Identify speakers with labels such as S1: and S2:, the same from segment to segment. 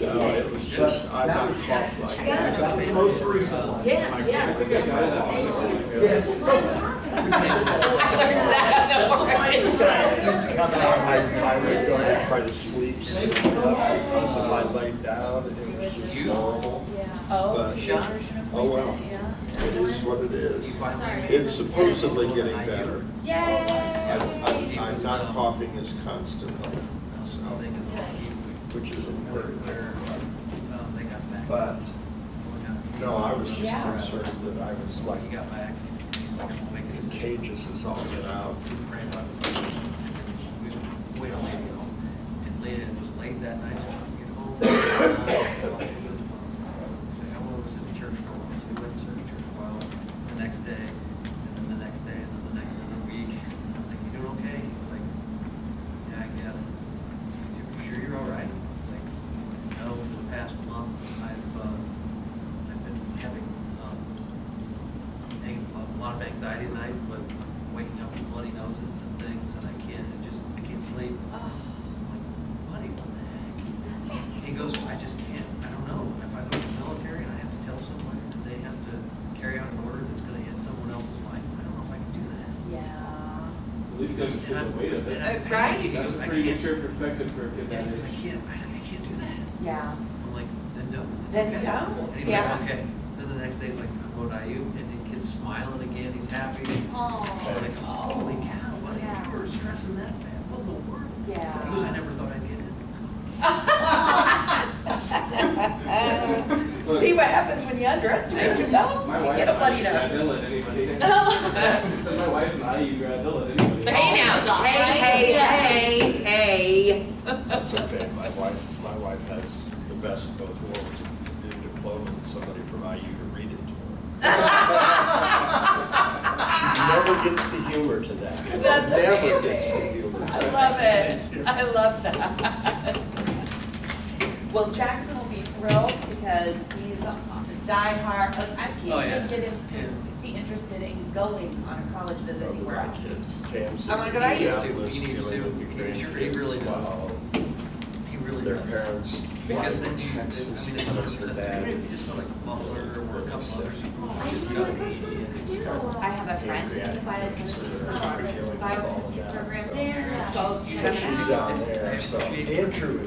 S1: was just, I got
S2: was-
S1: cough like.
S2: That was the most recent one.
S3: Yes, yes.
S2: Yes.
S4: I learned that at work.
S1: I used to come out, I, I would go and try to sleep, so I laid down and it was just horrible.
S4: Oh,
S1: But, oh well, it is what it is.
S5: Sorry.
S1: It's supposedly getting better.
S5: Yay!
S1: I'm, I'm- I'm not coughing as constantly, so, which is important. But, no, I was just
S4: Yeah.
S1: concerned that I was like
S6: He got back. He's like, I'm gonna make it.
S1: contagious as all get out.
S6: Ran by the station. We went on Leah Hill, and Leah was late that night, so she couldn't get home. So I was in church for a while, so we went to church for a while, the next day, and then the next day, and then the next, and the week. And I was like, you doing okay? He's like, yeah, I guess. You sure you're all right? It's like, no, for the past month, I've, uh, I've been having, um, ang- a lot of anxiety at night, but waking up with bloody noses and things, and I can't, I just, I can't sleep. I'm like, buddy, what the heck? He goes, I just can't, I don't know, if I go to the military and I have to tell someone, that they have to carry out an order that's gonna end someone else's life, I don't know if I can do that.
S4: Yeah.
S7: At least doesn't feel the weight of
S6: And
S7: it.
S6: I'm
S4: Uh,
S6: panicked.
S4: right?
S6: He
S7: That's
S6: goes,
S7: a
S6: I
S7: pretty
S6: can't,
S7: mature perspective for a kid
S6: yeah,
S7: that
S6: he goes, I
S7: age.
S6: can't, I I can't do that.
S4: Yeah.
S6: I'm like, then don't. It's
S4: Then
S6: okay."
S4: don't,
S6: And he's
S4: yeah.
S6: like, okay. Then the next day, he's like, I'm going to IU, and the kid's smiling again, he's happy.
S5: Oh.
S6: I'm like, holy cow, buddy,
S5: Yeah.
S6: you were stressing that bad, what in the world?
S4: Yeah.
S6: He goes, I never thought I'd get it.
S4: See what happens when you underestimate yourself?
S7: My
S4: You
S7: wife's
S4: get a
S7: not
S4: bloody
S7: a grad
S4: nose.
S7: Hill at anybody.
S4: Oh.
S7: So my wife's an IU grad Hill at anybody.
S4: Hey now, hey, hey, hey, hey.
S1: That's okay, my wife, my wife has the best of both worlds, a new diploma and somebody from IU to read it to
S6: Ah!
S1: her. She never gets the humor to that.
S4: That's
S1: Never gets the
S4: amazing.
S1: humor to
S4: I
S1: that.
S4: love it. I love that. Well, Jackson will be thrilled because he's a diehard, like, I can't
S6: Oh, yeah.
S4: even get him to be interested in going on a college visit
S1: Love
S4: anywhere
S1: my
S4: else.
S1: kids, Tamsin.
S4: I wanna go to IU.
S1: Minneapolis,
S6: He needs to.
S1: dealing with the
S6: He really- he really
S1: grandkids
S6: does.
S1: while
S6: He really
S1: Their
S6: does.
S1: parents fly
S6: Because then
S1: to
S6: you, I mean,
S1: Texas,
S6: it's a
S1: because
S6: hundred
S1: her
S6: percent, so even
S1: dad
S6: if you just go like Butler or a couple others.
S5: I
S6: Just
S5: know, that's
S6: go.
S5: what you do.
S4: I have a friend who's in the biochemistry program, biochemistry program there. So
S1: She's down there, so Andrew is,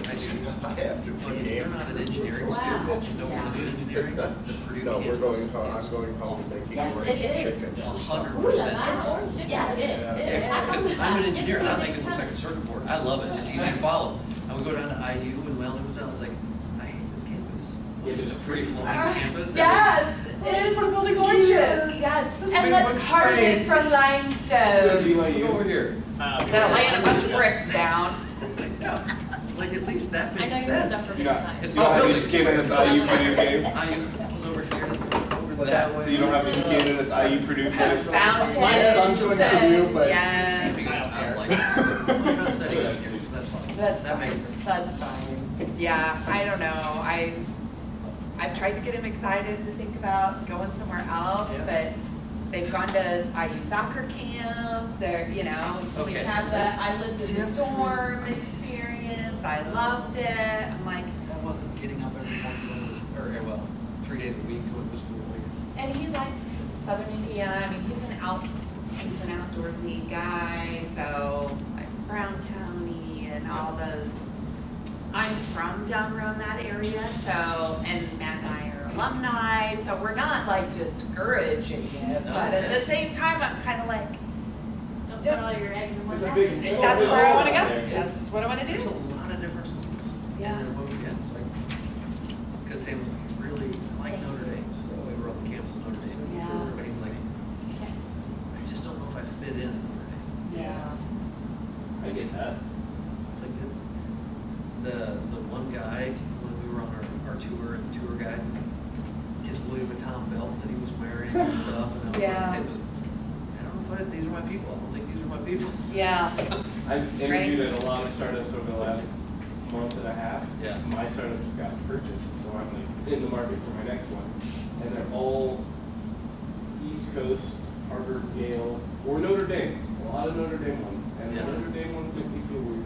S1: I have to
S6: But
S1: feed
S6: if you're not an
S1: Andrew.
S6: engineering
S5: Wow.
S6: student, you don't want to do engineering, the Purdue
S1: No, we're
S6: campus
S1: going, home.
S6: is
S1: I'm going home
S6: awful.
S1: making
S4: Yes,
S1: orange
S4: it is.
S1: chicken.
S6: A
S1: for
S6: hundred
S1: supper.
S5: Ooh,
S6: percent.
S5: that's orange. Yes, it is. It is.
S6: Yeah, because I'm an
S5: It's
S6: engineer, and I
S5: like
S6: think it looks like a circuit board, I love it, it's easy to follow. I would go down to IU when Weldon was down, I was like, I hate this campus. It's just a free flowing campus.
S4: Yes,
S6: Let's
S4: it's
S6: put a building
S4: gorgeous,
S6: here.
S4: yes.
S6: Let's
S4: And
S6: make
S4: let's
S6: one
S4: carve it
S6: space.
S4: from
S7: Go to
S4: limestone.
S6: Go over
S7: BYU.
S6: here.
S4: Instead of laying a bunch of bricks down.
S6: Like, no, it's like at least that
S5: I know
S6: makes
S5: you
S6: sense.
S5: suffer from
S7: You're not,
S5: science.
S6: It's
S7: you don't
S6: all
S7: have any
S6: buildings.
S7: skin in this IU Purdue game.
S6: I used, I was over here, it's over that way.
S7: So you don't have any skin in this IU Purdue
S4: That's
S7: game.
S4: fountain.
S1: Yes, I'm doing the real thing.
S5: Uh,
S4: Yes.
S6: Because I'm like, well, you're not studying engineering, so that's fine.
S4: That's
S6: That makes
S4: fine.
S6: sense.
S4: That's fine. Yeah, I don't know. I, I've tried to get him excited to think about going somewhere else, but
S6: Yeah.
S4: they've gone to IU soccer camp, they're, you know, we
S6: Okay,
S4: had
S6: that's
S4: the, I lived in the
S6: different.
S4: dorm experience, I loved it. I'm like,
S6: I wasn't getting up every morning, going to school, or, eh, well, three days a week going to school. like,
S4: and he likes southern Indiana, I mean, he's an out, he's an outdoorsy guy, so like Brown County and all those. I'm from down around that area, so, and Matt and I are alumni, so we're not like discouraging it,
S6: No,
S4: but at the
S6: yes.
S4: same time, I'm kind of like,
S5: Don't put all your eggs in one
S7: It's a big
S5: basket.
S7: deal.
S4: that's where I want to
S7: There.
S4: go, that's what I want to
S6: There's a
S4: do.
S6: lot of different schools.
S4: Yeah.
S6: And then what we did, it's like, because Sam was like, I really like Notre Dame, so we were on the campus of Notre Dame.
S4: Yeah.
S6: But he's like, I just don't know if I fit in at Notre Dame.
S4: Yeah.
S7: I get that.
S6: It's like that's the the one guy when we were on our, our tour, the tour guide, his Louis Vuitton belt that he was wearing and stuff, and I was
S4: Yeah.
S6: like, it was, I don't know if I, these are my people. I don't think these are my people.
S4: Yeah.
S7: I've interviewed at a lot of startups over the last month and a half.
S6: Yeah.
S7: My startup just got purchased, so I'm like in the market for my next one. And they're all East Coast, Harvard, Yale, or Notre Dame. A lot of Notre Dame ones. And the
S6: Yeah.
S7: Notre Dame ones make me feel weird.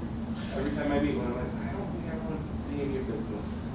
S7: Every time I meet one, I'm like, I don't think I want to be in your business.